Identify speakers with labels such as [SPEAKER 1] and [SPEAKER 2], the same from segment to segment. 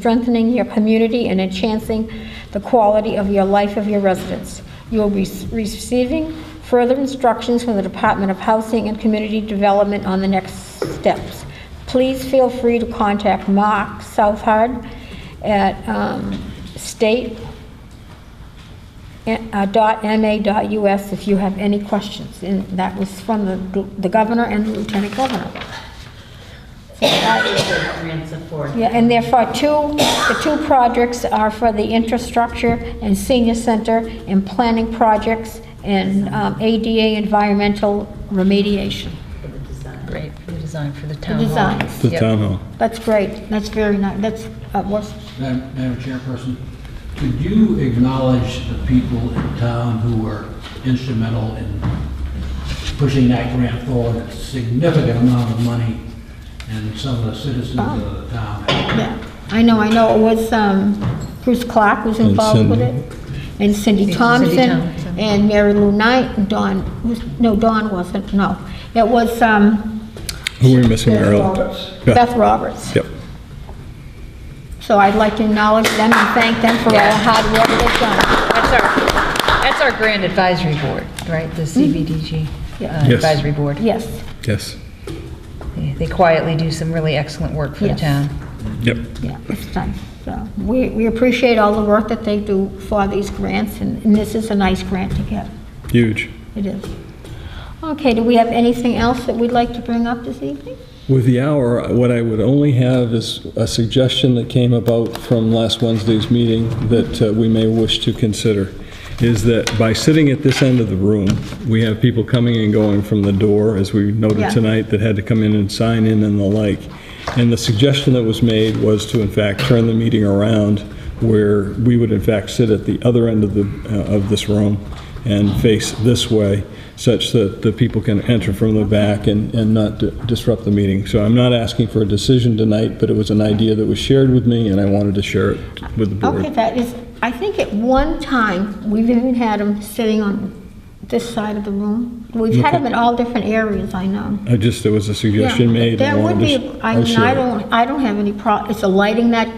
[SPEAKER 1] strengthening your community and enhancing the quality of your life of your residents. You will be receiving further instructions from the Department of Housing and Community Development on the next steps. Please feel free to contact Mark Southard at um, state uh, dot MA dot US if you have any questions. And that was from the the governor and the lieutenant governor. So that-
[SPEAKER 2] Grants of four.
[SPEAKER 1] yeah, and therefore, two, the two projects are for the infrastructure and senior center and planning projects and um, ADA environmental remediation,
[SPEAKER 2] For the design.
[SPEAKER 3] Great, for the design for the
[SPEAKER 1] the
[SPEAKER 3] town hall.
[SPEAKER 1] designs.
[SPEAKER 4] The
[SPEAKER 3] Yep.
[SPEAKER 4] town hall.
[SPEAKER 1] That's great, that's very nice, that's, uh, what's,
[SPEAKER 5] Madam Madam Chairperson, could you acknowledge the people in town who were instrumental in pushing that grant forward, a significant amount of money, and some of the citizens of the town?
[SPEAKER 1] yeah, I know, I know, it was, um, Bruce Clark was
[SPEAKER 4] And
[SPEAKER 1] involved with
[SPEAKER 4] Cindy.
[SPEAKER 1] it, and Cindy
[SPEAKER 3] Cindy
[SPEAKER 1] Thompson,
[SPEAKER 3] Thompson.
[SPEAKER 1] and Mary Lou Knight, and Don, was- no, Don wasn't, no. It was, um,
[SPEAKER 4] Who were we missing
[SPEAKER 1] Beth
[SPEAKER 4] earlier?
[SPEAKER 1] Roberts.
[SPEAKER 4] Yeah.
[SPEAKER 1] Beth Roberts.
[SPEAKER 4] Yep.
[SPEAKER 1] So I'd like to acknowledge them and thank them for all the hard work they've done.
[SPEAKER 3] That's our, that's our grant advisory board, right, the CBDG
[SPEAKER 1] Yeah.
[SPEAKER 3] uh,
[SPEAKER 4] Yes.
[SPEAKER 3] advisory board.
[SPEAKER 1] Yes,
[SPEAKER 4] Yes.
[SPEAKER 3] Yeah, They quietly do some really excellent work for the
[SPEAKER 1] Yes.
[SPEAKER 3] town.
[SPEAKER 4] Yep.
[SPEAKER 1] yeah, it's nice. So we, we appreciate all the work that they do for these grants, and and this is a nice grant to get.
[SPEAKER 4] Huge.
[SPEAKER 1] It is. Okay, do we have anything else that we'd like to bring up this evening?
[SPEAKER 4] With the hour, what I would only have is a suggestion that came about from last Wednesday's meeting that uh, we may wish to consider, is that by sitting at this end of the room, we have people coming and going from the door, as we
[SPEAKER 1] Yeah.
[SPEAKER 4] noted tonight, that had to come in and sign in and the like. And the suggestion that was made was to in fact turn the meeting around where we would in fact sit at the other end of the, uh, of this room and face this way, such that the people can enter from the back and, and not di- disrupt the meeting. So I'm not asking for a decision tonight, but it was an idea that was shared with me, and I wanted to share it with the
[SPEAKER 1] Okay,
[SPEAKER 4] board.
[SPEAKER 1] that is, I think at one time, we've even had them sitting on this side of the room. We've had them in all different areas, I know.
[SPEAKER 4] I just, there was a
[SPEAKER 1] Yeah,
[SPEAKER 4] suggestion made. and I
[SPEAKER 1] That would
[SPEAKER 4] wanted
[SPEAKER 1] be,
[SPEAKER 4] to s-
[SPEAKER 1] I mean,
[SPEAKER 4] share
[SPEAKER 1] I
[SPEAKER 4] it.
[SPEAKER 1] don't, I don't have any prob, is the lighting that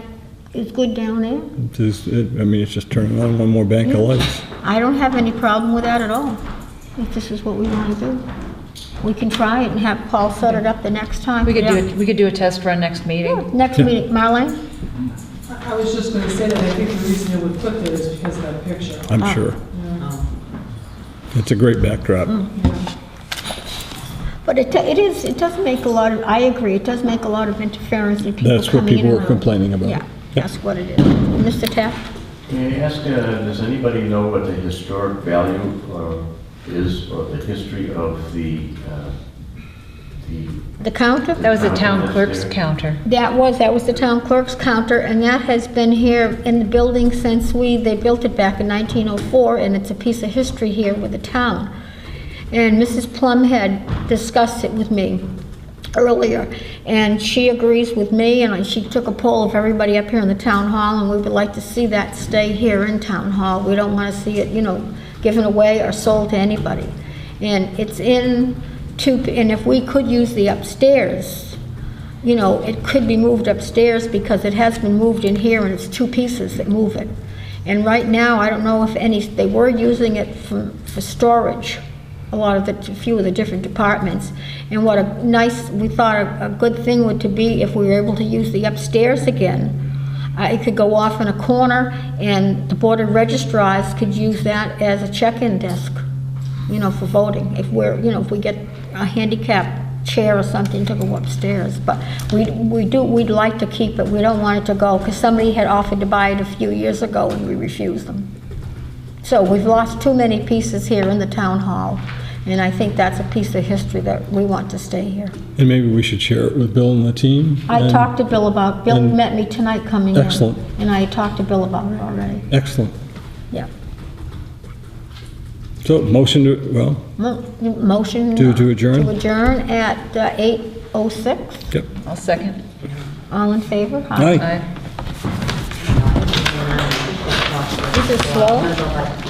[SPEAKER 1] is good down there?
[SPEAKER 4] Just- it- I mean, it's just turning on one more bank of lights.
[SPEAKER 1] I don't have any problem with that at all, if this is what we want to do. We can try it and have Paul set it up the next time.
[SPEAKER 3] We could do, a- we could do a test run next meeting.
[SPEAKER 1] Next meeting, Marlene?
[SPEAKER 6] I I was just going to say that I think the reason it would put there is because of that picture.
[SPEAKER 4] I'm
[SPEAKER 1] Ah.
[SPEAKER 4] sure.
[SPEAKER 1] Oh.
[SPEAKER 4] It's a great backdrop.
[SPEAKER 1] Hmm. But it, it is, it does make a lot of, I agree, it does make a lot of interference in people
[SPEAKER 4] That's what
[SPEAKER 1] coming in
[SPEAKER 4] people
[SPEAKER 1] and
[SPEAKER 4] were
[SPEAKER 1] out.
[SPEAKER 4] complaining about.
[SPEAKER 1] Yeah,
[SPEAKER 4] Yeah.
[SPEAKER 1] that's what it is. Mr. Taft?
[SPEAKER 7] May I ask, uh, does anybody know what the historic value uh, is, or the history of the, uh, the
[SPEAKER 1] The counter?
[SPEAKER 3] That was the town
[SPEAKER 7] That's
[SPEAKER 3] clerk's
[SPEAKER 7] there.
[SPEAKER 3] counter.
[SPEAKER 1] That was, that was the town clerk's counter, and that has been here in the building since we, they built it back in 1904, and it's a piece of history here with the town. And Mrs. Plum had discussed it with me earlier, and she agrees with me, and she took a poll of everybody up here in the town hall, and we would like to see that stay here in town hall. We don't want to see it, you know, given away or sold to anybody. And it's in two, and if we could use the upstairs, you know, it could be moved upstairs because it has been moved in here and it's two pieces that move it. And right now, I don't know if any, they were using it for, for storage, a lot of the, a few of the different departments. And what a nice, we thought a, a good thing would to be if we were able to use the upstairs again. Uh, It could go off in a corner and the Board of registrars could use that as a check-in desk you know, for voting, if we're, you know, if we get a handicap chair or something to go upstairs. But we, we do, we'd like to keep it, we don't want it to go, because somebody had offered to buy it a few years ago and we refused them. So we've lost too many pieces here in the town hall, and I think that's a piece of history that we want to stay here.
[SPEAKER 4] And maybe we should share it with Bill and the team.
[SPEAKER 1] I
[SPEAKER 4] and-
[SPEAKER 1] talked to Bill about, Bill
[SPEAKER 4] and-
[SPEAKER 1] met me tonight coming in.
[SPEAKER 4] Excellent.
[SPEAKER 1] And I talked to Bill about it already,
[SPEAKER 4] Excellent.
[SPEAKER 1] yeah.
[SPEAKER 4] So, motion to, well,
[SPEAKER 1] Mo- Motion.
[SPEAKER 4] To-
[SPEAKER 1] uh,
[SPEAKER 4] to adjourn?
[SPEAKER 1] To adjourn at uh, 8:06.
[SPEAKER 4] yep.
[SPEAKER 3] I'll second.
[SPEAKER 1] All in favor?
[SPEAKER 4] Aye.
[SPEAKER 3] Aye.
[SPEAKER 1] This is slow.
[SPEAKER 2] Like,